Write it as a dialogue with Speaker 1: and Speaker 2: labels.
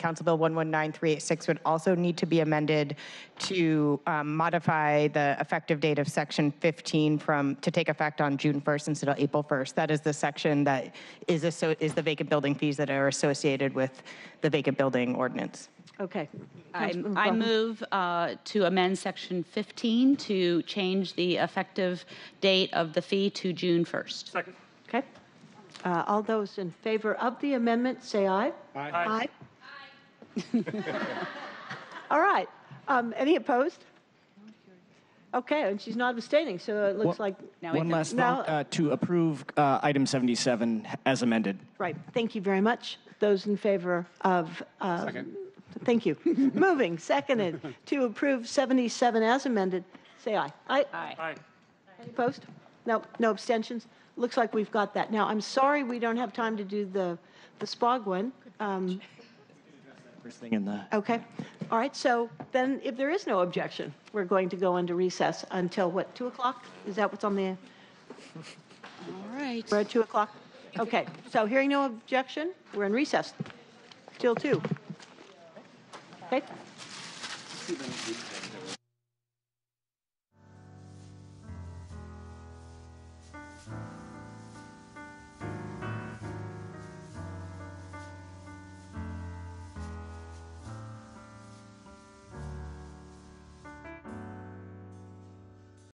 Speaker 1: Council Bill 119386 would also need to be amended to um, modify the effective date of Section 15 from, to take effect on June 1st instead of April 1st. That is the section that is, asso- is the vacant building fees that are associated with the vacant building ordinance.
Speaker 2: Okay.
Speaker 3: I
Speaker 2: Councilmember
Speaker 3: I
Speaker 2: Bravo.
Speaker 3: move uh, to amend Section 15 to change the effective date of the fee to June 1st.
Speaker 4: Second.
Speaker 2: Okay. Uh, All those in favor of the amendment, say aye. Aye. All right. Um, Any opposed? Okay, and she's not abstaining, so it looks
Speaker 5: One-
Speaker 2: like,
Speaker 3: Now we
Speaker 5: One
Speaker 3: can-
Speaker 5: last vote
Speaker 2: Now-
Speaker 5: uh, to approve uh, item 77 as amended.
Speaker 2: right. Thank you very much. Those in favor of, uh,
Speaker 4: Second.
Speaker 2: thank you. Moving, seconded, to approve 77 as amended, say aye. Aye.
Speaker 3: Aye.
Speaker 4: Aye.
Speaker 2: Any Opposed? No, no abstentions? Looks like we've got that. Now, I'm sorry we don't have time to do the, the SPOG one. Um,
Speaker 5: First thing in the,
Speaker 2: Okay, all right, so then if there is no objection, we're going to go into recess until what, 2 o'clock? Is that what's on the,
Speaker 3: All right.
Speaker 2: we're at 2 o'clock? Okay, so hearing no objection, we're in recess till 2. Okay?